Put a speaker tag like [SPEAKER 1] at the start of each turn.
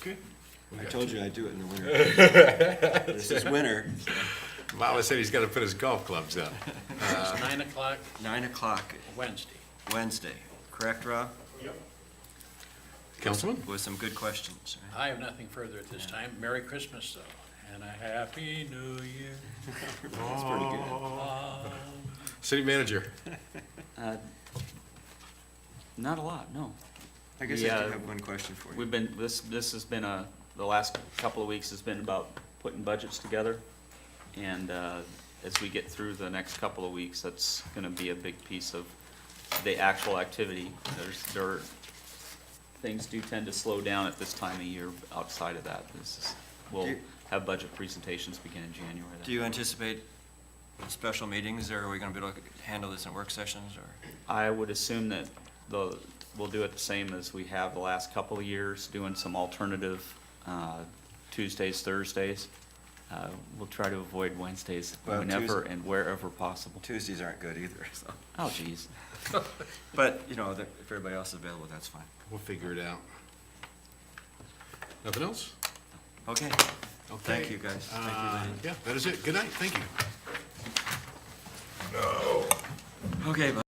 [SPEAKER 1] Good.
[SPEAKER 2] I told you I'd do it in the winter. This is winter,
[SPEAKER 3] Mama said he's gotta put his golf clubs down.
[SPEAKER 1] It's nine o'clock
[SPEAKER 2] nine o'clock
[SPEAKER 1] Wednesday.
[SPEAKER 2] Wednesday, correct, Rob?
[SPEAKER 3] Councilman?
[SPEAKER 2] With some good questions. right?
[SPEAKER 1] I have nothing further at this time. Merry Christmas, though, and a Happy New Year.
[SPEAKER 2] That's pretty good.
[SPEAKER 3] City manager?
[SPEAKER 4] Uh, Not a lot, no.
[SPEAKER 2] I guess I do
[SPEAKER 4] Yeah.
[SPEAKER 2] have one question for you.
[SPEAKER 4] We've been, this, this has been a, the last couple of weeks has been about putting budgets together. And uh, as we get through the next couple of weeks, that's gonna be a big piece of the actual activity. There's, there, are- things do tend to slow down at this time of year outside of that. This is,
[SPEAKER 2] Do
[SPEAKER 4] we'll
[SPEAKER 2] you-
[SPEAKER 4] have budget presentations begin in January. then.
[SPEAKER 2] Do you anticipate special meetings, or are we gonna be able to handle this in work sessions, or?
[SPEAKER 4] I would assume that the, we'll do it the same as we have the last couple of years, doing some alternative uh, Tuesdays, Thursdays. Uh, We'll try to avoid Wednesdays
[SPEAKER 2] Well,
[SPEAKER 4] whenever
[SPEAKER 2] Tues-
[SPEAKER 4] and wherever possible.
[SPEAKER 2] Tuesdays aren't good either, so.
[SPEAKER 4] Oh geez,
[SPEAKER 2] But, you know, that- if everybody else is available, that's fine.
[SPEAKER 3] We'll figure it out. Nothing else?
[SPEAKER 2] Okay,
[SPEAKER 3] Okay.
[SPEAKER 2] thank you, guys. Thank you,
[SPEAKER 3] Uh,
[SPEAKER 2] Lenny.
[SPEAKER 3] Yeah, that is it. Good night. Thank you.
[SPEAKER 2] Okay, bye.